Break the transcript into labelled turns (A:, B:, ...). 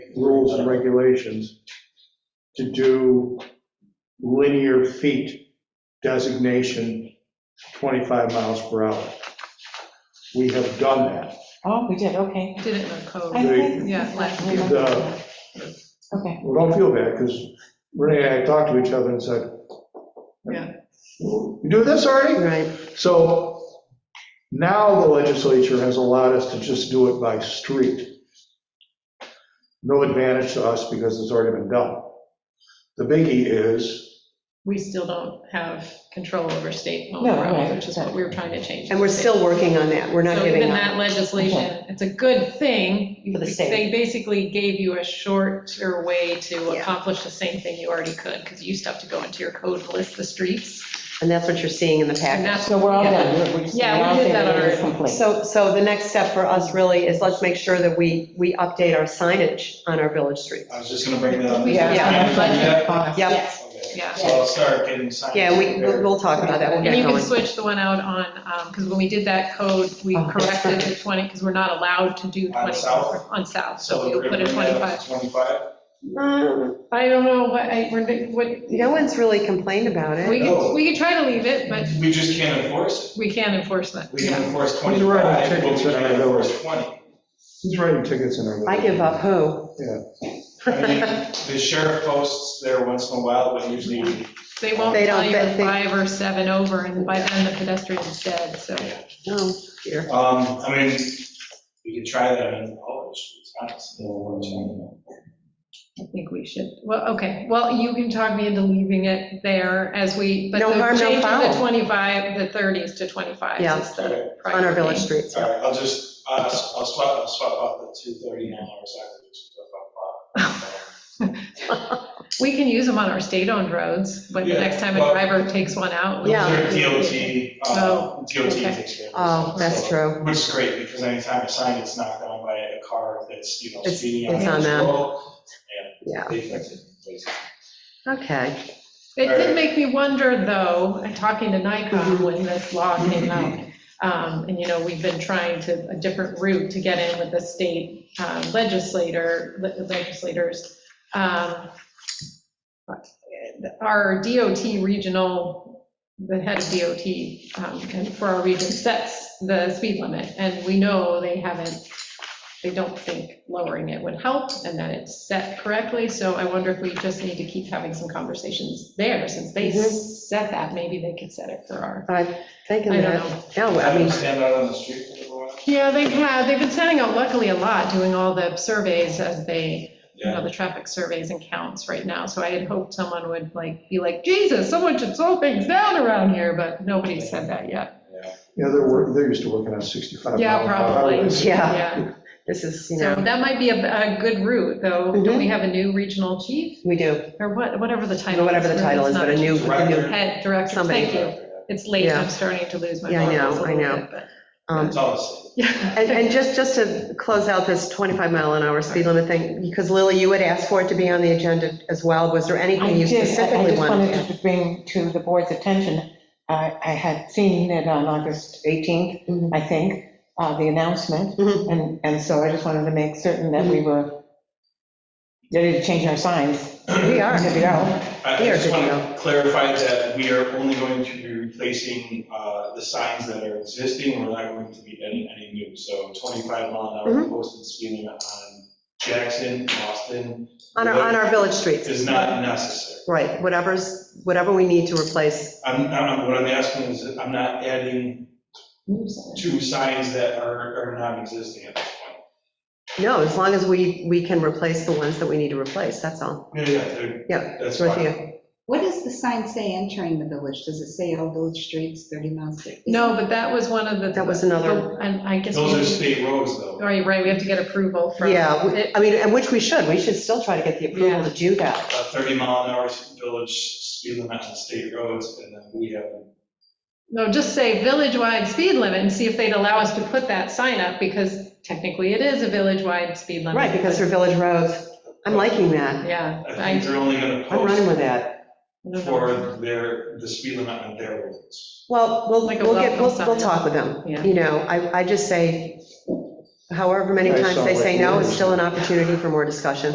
A: rules and regulations to do linear feet designation 25 miles per hour. We have done that.
B: Oh, we did, okay.
C: Did it in the
B: I
D: Oh,
C: code.
B: think-
C: Yeah, last
A: year.
B: Okay,
A: Well, don't feel bad, because Renee and I talked to each other and said,
C: Yeah.
A: You do this already?
D: Right,
A: So now the legislature has allowed us to just do it by street. No advantage to us because it's already been done. The biggie is,
C: We still don't have control over state owned
B: No,
C: roads,
B: right,
C: which is what we were trying to change.
D: and we're still working on that, we're not
C: So even
D: giving up.
C: that legislation, it's a good thing.
B: For the state.
C: They basically gave you a shorter way to
D: Yeah.
C: accomplish the same thing you already could, because you used to have to go into your code and list the streets.
D: And that's what you're seeing in the
C: And
D: package.
C: that's,
B: so we're all
C: yeah.
B: done. We're- we're just-
C: Yeah, we
B: we're all
C: did
B: there.
C: that
B: It is
C: already.
B: complete.
D: So, so the next step for us really is let's make sure that we, we update our signage on our village streets.
E: I was just gonna bring that up.
C: We
B: Yeah.
C: have
D: Yeah.
C: a budget.
D: Yep,
E: Okay,
C: Yeah.
E: So I'll start getting signed.
D: yeah, we, we'll we'll talk about that, we'll
C: And
D: get
C: you can
D: going.
C: switch the one out on, because when we did that code, we
B: Oh, that's
C: corrected the 20, because we're not allowed to do 20.
E: On south?
C: On south,
E: So
C: so
E: we're
C: we'll
E: gonna
C: put a
E: bring that
C: 25.
E: up to 25?
D: Um,
C: I don't know, what, I, we're, what,
D: No one's really complained about
C: we
D: it.
C: could, we could try to leave it, but
E: We just can't enforce
C: we can enforce that.
E: it. We can enforce
A: Who's writing
E: 25, but we
A: tickets in our
E: can't
A: village?
E: enforce 20.
A: who's writing tickets in our?
D: I give up who?
E: I mean, the sheriff posts there once in a while, but usually,
C: They won't
D: They
C: tell
D: don't-
C: you
D: they- they-
C: it's five or seven over, and by then the pedestrian's dead, so.
D: No.
E: um, I mean, we could try that in all the streets, honestly. Well,
C: I think we should, well, okay, well, you can talk me into leaving it there as we, but
D: No harm,
C: the
D: no
C: change of
D: foul.
C: the 25, the 30s to 25
D: Yeah.
C: is the priority.
D: On our village streets,
E: All
D: yeah.
E: right, I'll just, uh, I'll swap, I'll swap out the 230 now, or something. just swap out five.
C: We can use them on our state-owned roads, but the
E: Yeah,
C: next time a
E: well-
C: driver takes one out. we-
D: Yeah.
E: They're DOT, uh,
C: Oh,
E: DOT
C: okay.
E: takes care of it.
D: Oh, that's
E: So-
D: true.
E: Which is great, because anytime a sign gets knocked down by a car that's, you know,
D: It's-
E: speeding
D: it's
E: out
D: on
E: of
D: them.
E: control,
D: Yeah,
E: they fix it. basically.
D: okay.
C: It did make me wonder, though, talking to Nikon when this law came out, um, and, you know, we've been trying to, a different route to get in with the state um, legislator, legislators. Um, Our DOT regional, the head of DOT um, and for our region sets the speed limit, and we know they haven't, they don't think lowering it would help and that it's set correctly, so I wonder if we just need to keep having some conversations there, since they
D: Mhm.
C: set that, maybe they could set it for our,
D: I'm thinking
C: I don't know.
D: that, no, I
E: Have them
D: mean,
E: Stand out on the street for everyone.
C: Yeah, they have, they've been sending out luckily a lot, doing all the surveys as they, you know,
E: Yeah.
C: the traffic surveys and counts right now. So I had hoped someone would like, be like, Jesus, someone should slow things down around here, but nobody said that yet.
A: Yeah, they're, wor- they're used to working on 65.
C: Yeah,
A: mile an hour
C: probably.
A: highways.
D: yeah, this is, you
C: So
D: know,
C: that might be a, a good route, though. Don't we have a new regional chief
D: we do,
C: or what, whatever the title?
D: whatever the
C: is,
D: title is,
C: it's
D: but a
C: not
D: new, a new
C: Head director,
D: Somebody.
C: thank you. It's late,
D: Yeah.
C: I'm starting to lose my.
D: Yeah, I know,
C: marbles a
D: I
C: little
D: know.
C: bit,
D: um,
E: It's all the same.
C: but-
D: And, and just, just to close out this 25 mile an hour speed limit thing, because Lily, you had asked for it to be on the agenda as well, was there
B: I
D: anything you
B: did, I I
D: specifically
B: just
D: wanted?
B: wanted
D: to
B: to bring to the board's attention, I I had seen it on August 18th,
D: Mhm.
B: I think, uh, the announcement,
D: Mhm.
B: and, and so I just wanted to make certain that we
D: Mm-hmm.
B: were ready to change our signs.
D: We are.
B: Good to go.
E: I I
D: They are
E: just
D: good to
E: want to clarify that we are only going to be replacing uh, the signs that are existing, we're not going to be adding any new. So 25 mile an hour
D: Mm-hmm.
E: posted speed limit on Jackson, Austin.
D: On our, on our village streets,
E: Is not necessary.
D: right, whatever's, whatever we need to replace,
E: I'm, I'm, what I'm asking is, that I'm not adding two signs that are, are non-existing at this point.
D: no, as long as we, we can replace the ones that we need to replace, that's all.
E: Yeah, yeah, they're-
D: Yeah,
E: that's
D: with
E: fine.
D: you.
F: What does the sign say entering the village? Does it say all village streets, 30 miles?
C: No, but that was one of the.
D: That was another-
C: And I guess.
E: Those
C: we-
E: are state roads, though.
C: All right, right, we have to get approval from.
D: Yeah, we-
C: it-
D: I mean, and which we should, we should still try to get the approval to do
E: A
D: that.
E: 30 mile an hour village speed limit on state roads, and then we have,
C: No, just say village-wide speed limit and see if they'd allow us to put that sign up, because technically it is a village-wide speed limit.
D: Right, because they're village roads, I'm liking that,
C: Yeah.
E: I think they're only gonna
D: I'm running
E: post
D: with that.
E: for their, the speed limit on their roads.
D: Well, we'll,
C: Like a
D: we'll get, we'll,
C: welcome
D: we'll
C: sign.
D: talk with them.
C: Yeah.
D: You know, I, I just say, however many
A: Guys
D: times
A: sound
D: they
A: like
D: say no,
A: lawyers.
D: it's still an opportunity for more discussion.